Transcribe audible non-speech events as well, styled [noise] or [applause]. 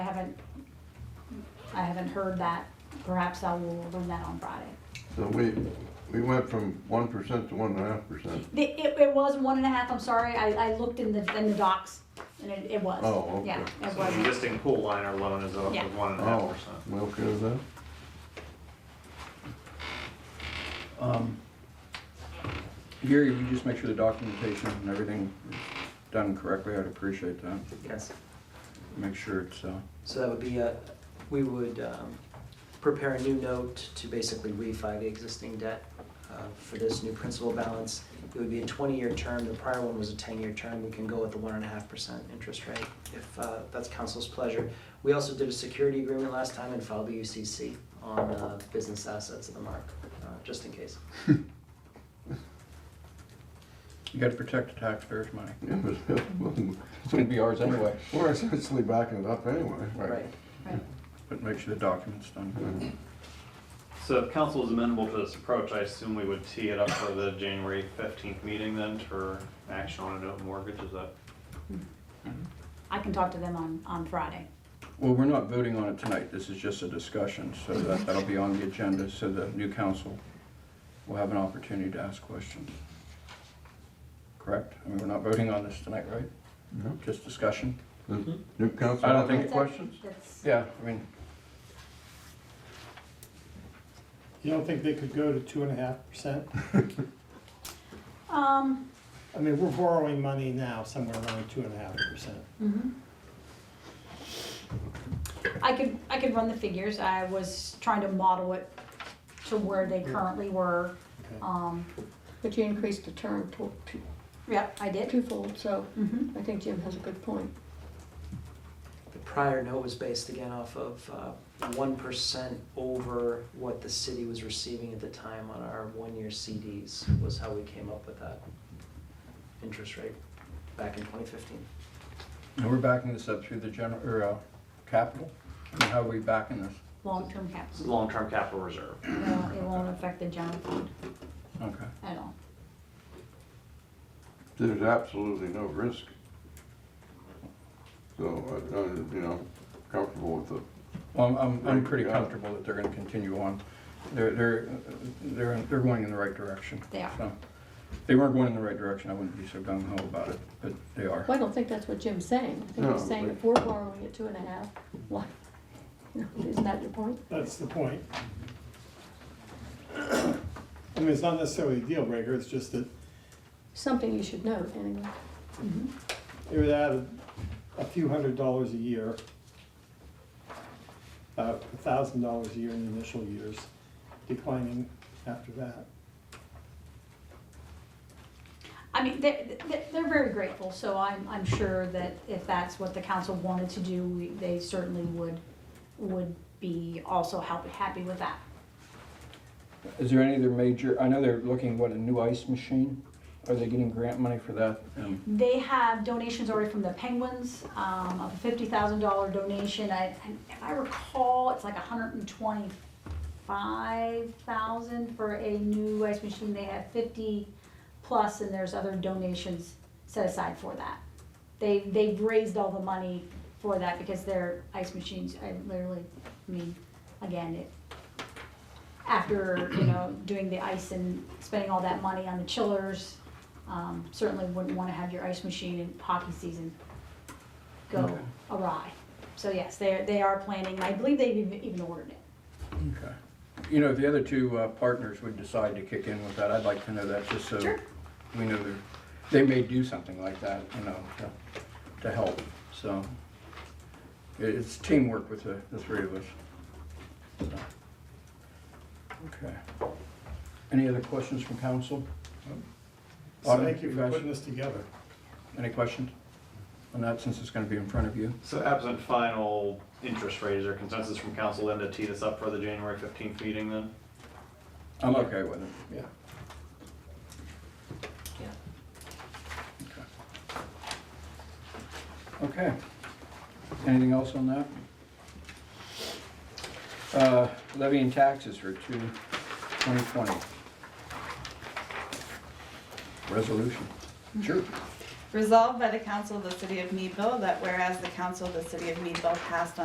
I haven't heard that. Perhaps I will learn that on Friday. So we, we went from one percent to one and a half percent. The- It, it was one and a half, I'm sorry, I, I looked in the, in the docs, and it, it was. Oh, okay. Yeah, it So the was. existing pool liner loan is up Yeah. with one and a half Oh, percent. we okay with that? Um, Gary, if you just make sure the documentation and everything is done correctly, I'd appreciate that. Yes, Make sure it's, uh, so that would be, uh, we would um, prepare a new note to basically refi the existing debt uh, for this new principal balance. It would be a 20-year term, the prior one was a 10-year term, we can go with the 1.5% interest rate if uh, that's council's pleasure. We also did a security agreement last time and filed the UCC on uh, business assets of the mark, uh, just in case. you gotta protect the taxpayers' money. Yeah, but [laughs] It's gonna be ours anyway. We're essentially backing it up anyway. Right. But make sure the document's done. So if council is amenable to this approach, I assume we would tee it up for the January fifteenth meeting then for action on a note mortgage, is that? I can talk to them on, on Friday. Well, we're not voting on it tonight, this is just a discussion, so that, that'll be on the agenda, so the new council will have an opportunity to ask questions. Correct? I mean, we're not voting on this tonight, right? No. Just discussion? Does New council. I don't think- Any That's it. questions? That's, Yeah, I mean, You don't think they could go to two and a half percent? um, I mean, we're borrowing money now somewhere around two and a half percent. mhm. I could, I could run the figures, I was trying to model it to where they currently were, Okay. um, But you increased the term to- to- yep, I did. twofold, so Mhm. I think Jim has a good point. The prior note was based again off of uh, one percent over what the city was receiving at the time on our one-year CDs was how we came up with that interest rate back in twenty fifteen. and we're backing this up through the general, or, uh, capital? I mean, How are we backing this? Long-term This is capital, long-term capital reserve. it won't, it won't affect the general fund Okay. at all. There's absolutely no risk. So, I, I, you know, comfortable with the, Well, I'm- I'm, I'm pretty Yeah. comfortable that they're gonna continue on. They're, they're, they're, they're going in the right direction. They are. So, if They weren't going in the right direction, I wouldn't be so gung ho about it, but they are. Well, I don't think that's what Jim's saying. I think No, he's saying but- if we're borrowing at two and a half, why? [laughs] you know, Isn't that your point? That's the point. I mean, it's not necessarily a deal breaker, it's just that Something you should note, anyway. it would add a few hundred dollars a year, about a thousand dollars a year in the initial years, declining after that. I mean, they, they, they're very grateful, so I'm, I'm sure that if that's what the council wanted to do, we, they certainly would, would be also help, happy with that. Is there any other major, I know they're looking, what, a new ice machine? Are they getting grant money for that? And They have donations already from the Penguins, um, of a fifty thousand dollar donation, I, and if I recall, it's like a hundred and twenty-five thousand for a new ice machine, they have fifty plus, and there's other donations set aside for that. They, they've raised all the money for that because their ice machines, I literally, I mean, again, it, after, you know, doing the ice and spending all that money on the chillers, um, certainly wouldn't wanna have your ice machine in hockey season go Okay. awry. So yes, they're, they are planning, I believe they've even even ordered it. Okay. You know, if the other two uh, partners would decide to kick in with that, I'd like to know that, just so Sure. we know they're, they may do something like that, you know, to, to help, so. it- It's teamwork with the, the three of us. So. Okay. Any other questions from council? So Autumn, thank you for guys? putting this together. Any questions on that, since it's gonna be in front of you? So absent final interest rate, is there consensus from council then to tee this up for the January fifteenth meeting then? I'm okay with it. Yeah. Okay. Anything else on that? Uh, Levy and taxes for two- 2020. Resolution. Sure. Resolved by the Council of the City of Meadville that whereas the Council of the City of Meadville passed on